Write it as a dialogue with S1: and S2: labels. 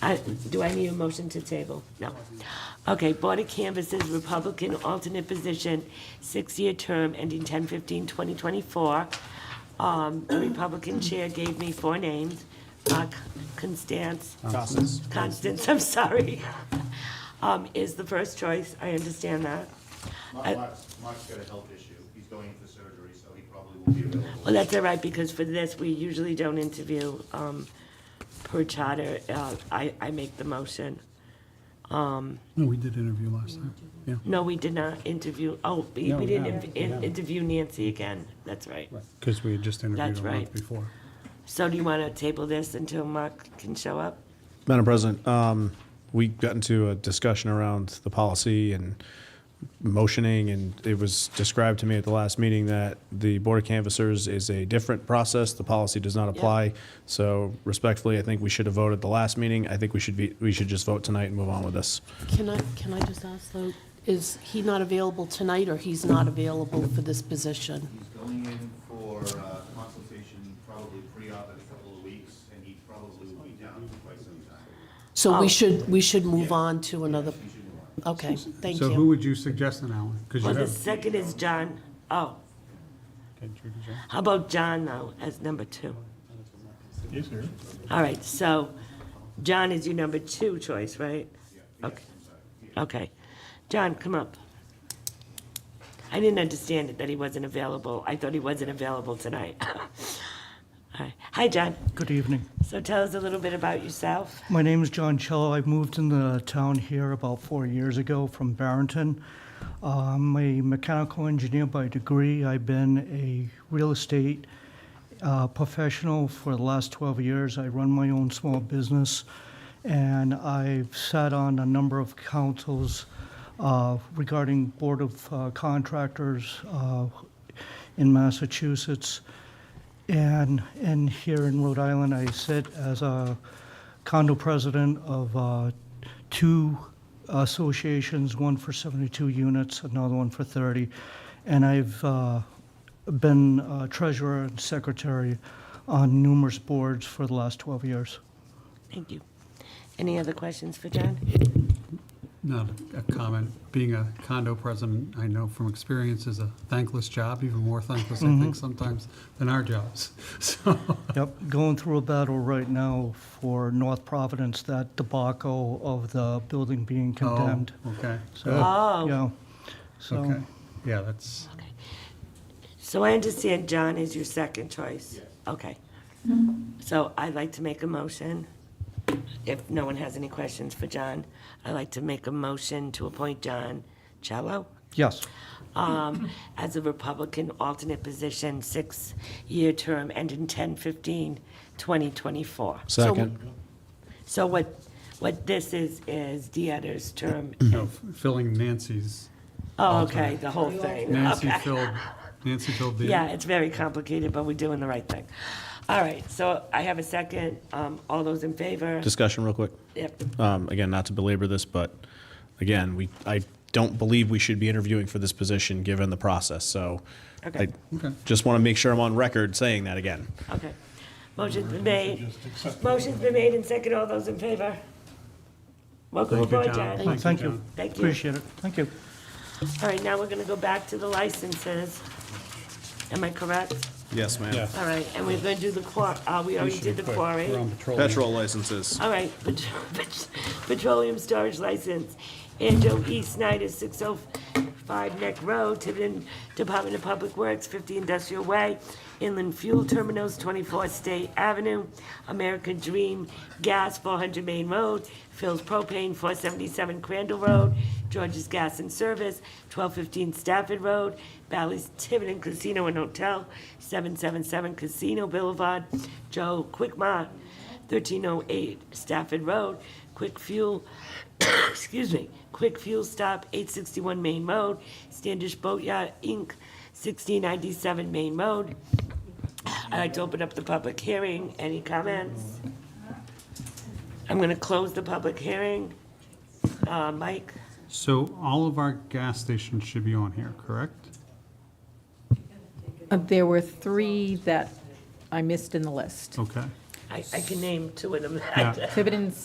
S1: I- Do I need a motion to table? No. Okay, Board of Canvassers, Republican alternate position, six-year term ending 10/15/2024. Um, The Republican chair gave me four names, Uh, Constance,
S2: Constance.
S1: Constance, I'm sorry, um, is the first choice, I understand that. I-
S3: Mark's, Mark's got a health issue, he's going in for surgery, so he probably won't be available.
S1: Well, that's all right, because for this, we usually don't interview um, per charter. Uh, I I make the motion.
S4: No, we did interview last time, yeah.
S1: No, we did not interview, oh, we
S2: No,
S1: we
S2: we
S1: didn't
S2: haven't.
S1: in- in- interview Nancy again, that's right.
S4: Because we had just interviewed
S1: That's
S4: a month
S1: right.
S4: before.
S1: So do you want to table this until Mark can show up?
S2: Madam President, um, we got into a discussion around the policy and motioning, and it was described to me at the last meeting that the Board of Canvassers is a different process. The policy does not apply. So respectfully, I think we should have voted the last meeting. I think we should be, we should just vote tonight and move on with this.
S5: Can I, can I just ask though, is he not available tonight or he's not available for this position?
S3: He's going in for uh, consultation, probably pre-op in a couple of weeks, and he probably will be down for quite some time.
S5: So we should, we should move on to another, okay, thank
S4: So who
S5: you.
S4: would you suggest then, Alan? Because you
S1: Well, the
S4: have.
S1: second is John, oh, how about John now as number two?
S6: Yes, sir.
S1: All right, so John is your number two choice, right? Okay. Okay. John, come up. I didn't understand it, that he wasn't available. I thought he wasn't available tonight. All right. Hi, John.
S6: Good evening.
S1: So tell us a little bit about yourself.
S6: My name is John Cello. I moved in the town here about four years ago from Barrington. Uh, I'm a mechanical engineer by degree. I've been a real estate uh, professional for the last 12 years. I run my own small business, and I've sat on a number of councils uh, regarding Board of uh, Contractors uh, in Massachusetts. And, and here in Rhode Island, I sit as a condo president of uh, two associations, one for 72 units, another one for 30. And I've uh, been uh, treasurer and secretary on numerous boards for the last 12 years.
S1: Thank you. Any other questions for John?
S4: Not a comment. Being a condo president, I know from experience is a thankless job, even more thankless, I think, sometimes than our jobs. So,
S6: Yep, going through a battle right now for North Providence, that debacle of the building being
S4: oh,
S6: condemned.
S4: okay.
S6: So,
S1: Oh,
S6: yeah, so,
S4: Okay, yeah, that's,
S1: so I understand John is your second choice? Okay. So I'd like to make a motion, if no one has any questions for John, I'd like to make a motion to appoint John Cello
S6: yes,
S1: um, as a Republican alternate position, six-year term ending 10/15/2024.
S2: Second.
S1: So what, what this is, is Dieter's term.
S4: no, filling Nancy's,
S1: Oh, okay, the whole thing.
S4: Nancy
S1: Okay.
S4: filled, Nancy filled the.
S1: Yeah, it's very complicated, but we're doing the right thing. All right, so I have a second. Um, All those in favor?
S2: Discussion real quick.
S1: Yep.
S2: Um, again, not to belabor this, but again, we, I don't believe we should be interviewing for this position, given the process, so. I
S1: Okay.
S4: Okay.
S2: Just want to make sure I'm on record saying that again.
S1: Okay. Motion's been made. Motion's been made and second. All those in favor? Welcome
S4: Thank you,
S1: aboard,
S4: John.
S1: John.
S6: thank
S4: John.
S6: you.
S1: Thank you.
S6: Appreciate it, thank you.
S1: All right, now we're going to go back to the licenses. Am I correct?
S2: Yes, ma'am.
S1: All right, and we're going to do the quar, uh, we already did the quarry.
S4: We're on patrol.
S2: Petrol licenses.
S1: All right, pet- pet- petroleum storage license, Anjo E. Snyder, 605 Neck Road, Tiverton Department of Public Works, 50 Industrial Way, Inland Fuel Terminals, 24 State Avenue, American Dream Gas, 400 Main Road, Phil's Propane, 477 Crandall Road, George's Gas and Service, 1215 Stafford Road, Bally's Tiverton Casino and Hotel, 777 Casino Boulevard, Joe Quickmart, 1308 Stafford Road, Quick Fuel, excuse me, Quick Fuel Stop, 861 Main Road, Standish Boatyard, Inc., 1697 Main Road. I'd like to open up the public hearing. Any comments? I'm going to close the public hearing. Uh, Mike?
S4: So all of our gas stations should be on here, correct?
S7: Uh, There were three that I missed in the list.
S4: Okay.
S1: I I can name two of them.
S4: Yeah.
S7: Tiverton's